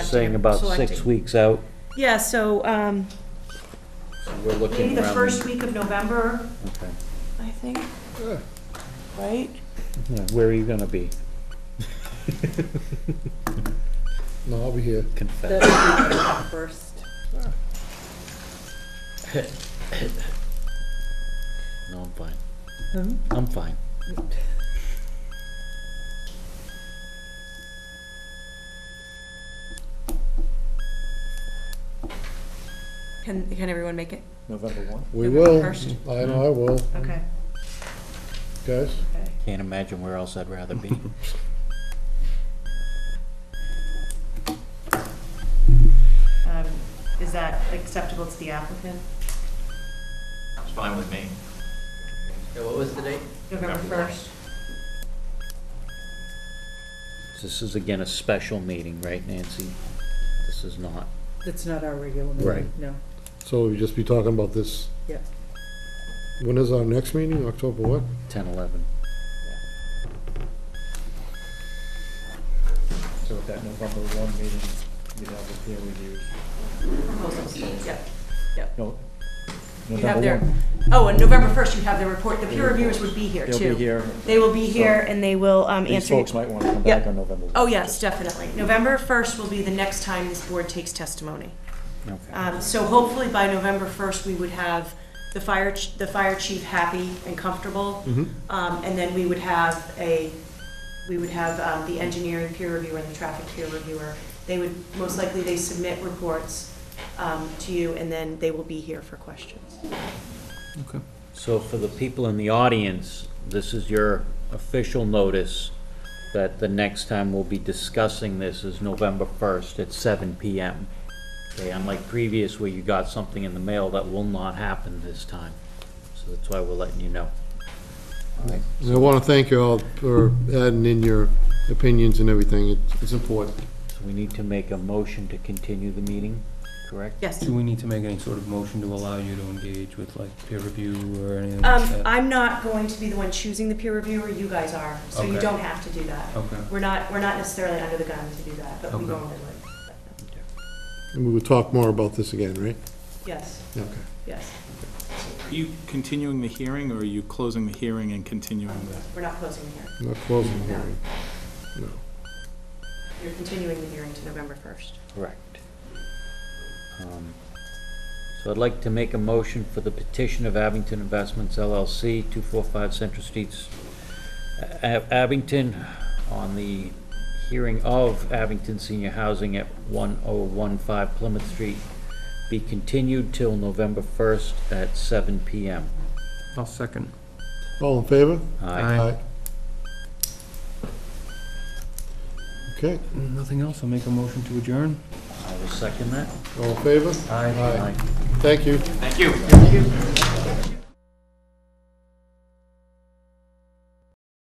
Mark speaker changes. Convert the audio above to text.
Speaker 1: saying about six
Speaker 2: selecting.
Speaker 1: weeks out.
Speaker 2: Yeah, so, um,
Speaker 1: We're
Speaker 3: Maybe
Speaker 1: looking
Speaker 3: the
Speaker 1: around.
Speaker 3: first week of November,
Speaker 1: Okay.
Speaker 2: I think, right?
Speaker 1: Yeah, Where are you gonna be?
Speaker 4: No, I'll be here.
Speaker 1: Confess.
Speaker 5: That would be first.
Speaker 1: No, I'm fine.
Speaker 3: Hmm?
Speaker 1: I'm fine.
Speaker 2: Can, can everyone make it?
Speaker 6: November one?
Speaker 4: We
Speaker 2: November
Speaker 4: will.
Speaker 2: first.
Speaker 4: I know I will,
Speaker 5: Mm.
Speaker 3: okay,
Speaker 4: guys.
Speaker 3: okay.
Speaker 1: Can't imagine where else I'd rather be.
Speaker 3: Um, Is that acceptable to the applicant?
Speaker 6: It's fine with me. Yeah, what was the date?
Speaker 3: November
Speaker 6: November one.
Speaker 3: first?
Speaker 1: This is again a special meeting, right, Nancy? This is not.
Speaker 5: That's not our regular meeting,
Speaker 1: Right.
Speaker 5: no.
Speaker 4: So we'll just be talking about this.
Speaker 5: Yeah.
Speaker 4: When is our next meeting? October what?
Speaker 1: Ten, eleven.
Speaker 6: So at that November one meeting, you'd have the peer review.
Speaker 3: Proposals, yep, yep.
Speaker 6: No.
Speaker 3: You
Speaker 6: November
Speaker 3: have their,
Speaker 6: one.
Speaker 3: oh, and November first, you have their report, the peer reviewers would be here too.
Speaker 6: They'll be here.
Speaker 3: They will be here
Speaker 6: So
Speaker 3: and they will um,
Speaker 6: These
Speaker 3: answer.
Speaker 6: folks might want to come
Speaker 3: Yep.
Speaker 6: back on November one.
Speaker 3: Oh, yes,
Speaker 6: just-
Speaker 3: definitely. November first will be the next time this board takes testimony.
Speaker 1: Okay.
Speaker 3: Um, So hopefully by November 1st, we would have the fire, ch- the fire chief happy and comfortable.
Speaker 6: Mm-hmm.
Speaker 1: Mm-hmm.
Speaker 3: Um, And then we would have a, we would have um, the engineering peer reviewer and the traffic peer reviewer. They would, most likely, they submit reports um, to you, and then they will be here for questions.
Speaker 1: So for the people in the audience, this is your official notice that the next time we'll be discussing this is November first at seven PM. Okay, unlike previous where you got something in the mail, that will not happen this time. So that's why we're letting you know.
Speaker 4: And I want to thank you all for adding in your opinions and everything. It's- It's important.
Speaker 1: So we need to make a motion to continue the meeting, correct?
Speaker 3: Yes.
Speaker 7: Do we need to make any sort of motion to allow you to engage with like peer review or anything like
Speaker 3: Um,
Speaker 7: that?
Speaker 3: I'm not going to be the one choosing the peer reviewer, you guys are, so you
Speaker 7: Okay.
Speaker 3: don't have to do that.
Speaker 7: Okay.
Speaker 3: We're not, we're not necessarily under the gun to do that, but we
Speaker 7: Okay.
Speaker 3: normally would.
Speaker 4: And we will talk more about this again, right?
Speaker 3: Yes,
Speaker 4: Okay.
Speaker 3: yes,
Speaker 8: Are you continuing the hearing, or are you closing the hearing and continuing the?
Speaker 3: we're not closing here.
Speaker 4: Not closing the hearing. No.
Speaker 3: You're continuing the hearing to November 1st.
Speaker 1: Correct. Um, So I'd like to make a motion for the petition of Abington Investments LLC, 245 Central Streets, A- Abington, on the hearing of Abington Senior Housing at 1015 Plymouth Street, be continued till November 1st at 7 PM.
Speaker 7: I'll second.
Speaker 4: All in favor?
Speaker 1: Aye.
Speaker 4: Okay,
Speaker 7: Nothing else, I'll make a motion to adjourn.
Speaker 1: I will second that.
Speaker 4: all in favor?
Speaker 7: Aye.
Speaker 4: Thank you.
Speaker 6: Thank you.